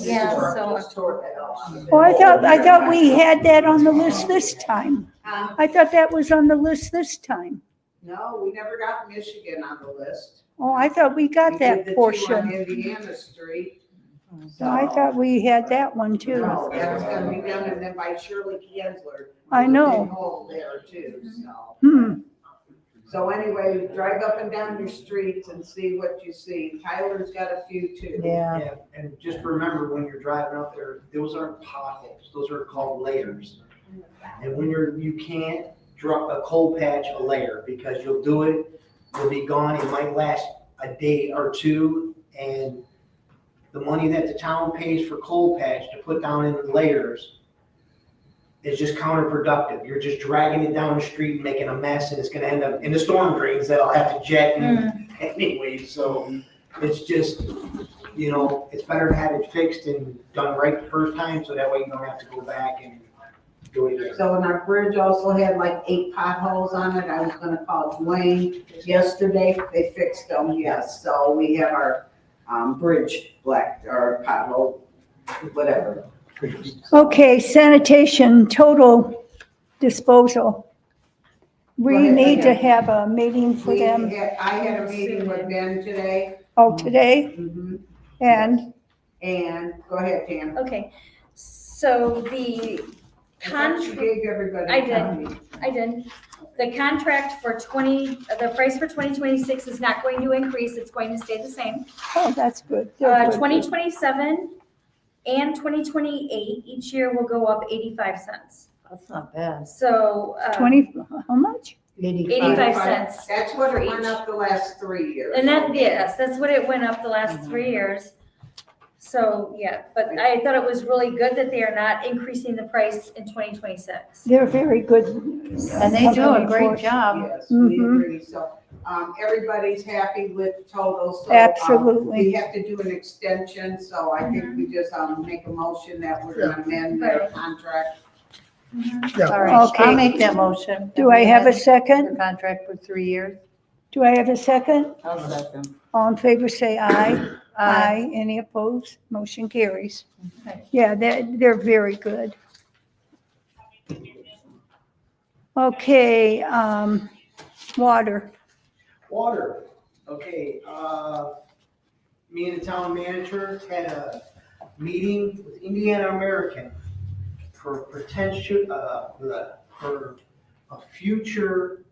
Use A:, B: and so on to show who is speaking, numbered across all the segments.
A: Yeah, so-
B: Oh, I thought, I thought we had that on the list this time.
A: Um,
B: I thought that was on the list this time.
C: No, we never got Michigan on the list.
B: Oh, I thought we
C: We
B: got
C: did
B: that
C: the two on
B: portion.
C: Indiana Street.
B: So I thought we had that one too.
C: No, that was gonna be done and then by Shirley Kienzler.
B: I know.
C: Big hole there too, so.
B: Hmm,
C: So anyway, drive up and down your streets and see what you see. Tyler's got a few too.
D: Yeah,
E: Yeah, and just remember when you're driving out there, those aren't potholes, those are called layers. And when you're, you can't drop a cold patch a layer because you'll do it, you'll be gone, it might last a day or two. And the money that the town pays for cold patch to put down in layers is just counterproductive. You're just dragging it down the street, making a mess, and it's gonna end up in the storm drains that'll have to jet in anyway, so it's just, you know, it's better to have it fixed and done right the first time, so that way you don't have to go back and do it again.
C: So and our bridge also had like eight potholes on it. I was gonna call Dwayne yesterday. They fixed them, yes. So we have our, um, bridge black or pothole, whatever.
B: okay, sanitation, total disposal. We need to have a meeting for
C: We
B: them,
C: had, I had a meeting with Ben today.
B: oh, today,
C: Mhm.
B: and,
C: And, go ahead, Tam.
A: Okay, so
C: I
A: the
C: thought you
A: contract,
C: Gave everybody.
A: I
C: a
A: did.
C: copy.
A: I did, the contract for twenty, uh, the price for twenty twenty-six is not going to increase, it's going to stay the same.
B: oh, that's good.
A: Uh, twenty twenty-seven and twenty twenty-eight, each year will go up eighty-five cents.
D: that's not bad.
A: So, uh,
B: Twenty, how much?
A: eighty-five cents.
C: That's what
A: for
C: it went
A: each.
C: up the last three years.
A: And that, yes, that's what it went up the last three years. So, yeah, but I thought it was really good that they are not increasing the price in twenty twenty-six.
B: They're very good.
C: Mm-hmm.
D: And they do a great
B: company
D: job.
C: Yes, we
B: Mhm.
C: agree, so, um, everybody's happy with the total, so.
B: for-
C: um, We
B: Absolutely,
C: have to do an extension, so I think we just, um, make a motion that we're gonna amend their
A: Right.
C: contract.
D: All right,
B: Okay.
D: I'll make that motion.
B: do I have a
D: The
B: second?
D: Contract for three years.
B: Do I have a second?
D: I'll second.
B: All in favor, say aye. Aye. Any opposed? Motion carries.
D: Okay.
B: Yeah, they're, they're very good. Okay, um, water.
E: Water, okay, uh, me and the town manager had a meeting with Indiana American for potential, uh, for- for a future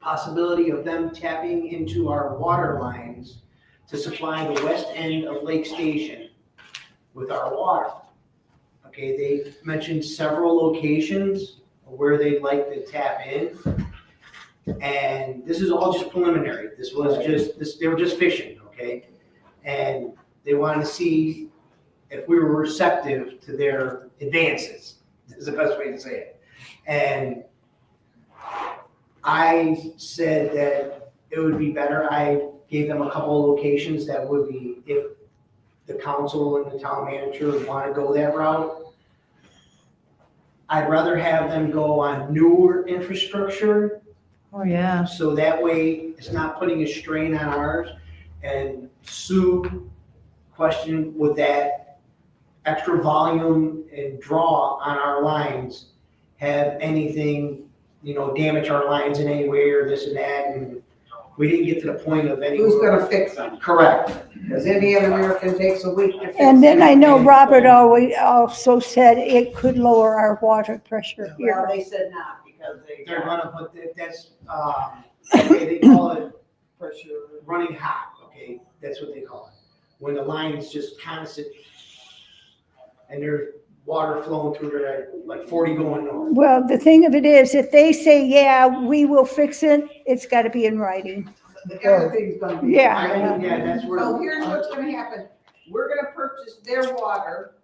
E: possibility of them tapping into our water lines to supply the west end of Lake Station with our water. Okay, they mentioned several locations where they'd like to tap in. And this is all just preliminary. This was just, this, they were just fishing, okay? And they wanted to see if we were receptive to their advances, is the best way to say it. And I said that it would be better, I gave them a couple of locations that would be, if the council and the town manager want to go that route. I'd rather have them go on newer infrastructure
D: Oh, yeah.
E: so that way, it's not putting a strain on ours. And Sue questioned would that extra volume and draw on our lines have anything, you know, damage our lines in any way or this and that, and we didn't get to the point of any.
C: Who's gonna fix them?
E: Correct,
C: Cause Indian American takes a week to fix.
B: And then I
C: them.
B: know Robert always also said it could lower our water pressure
C: Well,
B: here.
C: they said not, because they
E: they're
C: got
E: gonna put, that- that's, um, they call it
C: pressure.
E: running hot, okay? That's what they call it. When the line is just constant and there's water flowing through there, like forty going north.
B: Well, the thing of it is, if they say, yeah, we will fix it, it's got to be in writing.
C: Everything's gonna be.
B: Yeah.
E: I mean, yeah, that's where.
C: So here's what's gonna happen. We're gonna purchase their water,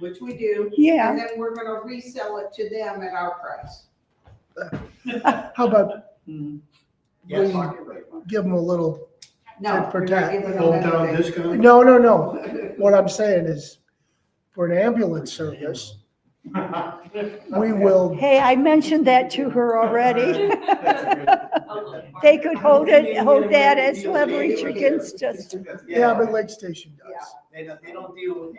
C: which we do,
B: Yeah,
C: and then we're gonna resell it to them at our price.
F: How about
E: Hmm. Yes.
F: give them a little,
C: No.
F: To protect.
C: Hold down discount?
F: no, no, no. What I'm saying is, for an ambulance service, we will,
B: hey, I mentioned that to her already. They could hold it, hold that as leverage against us.
F: yeah, but Lake Station does.
E: They don't, they don't deal with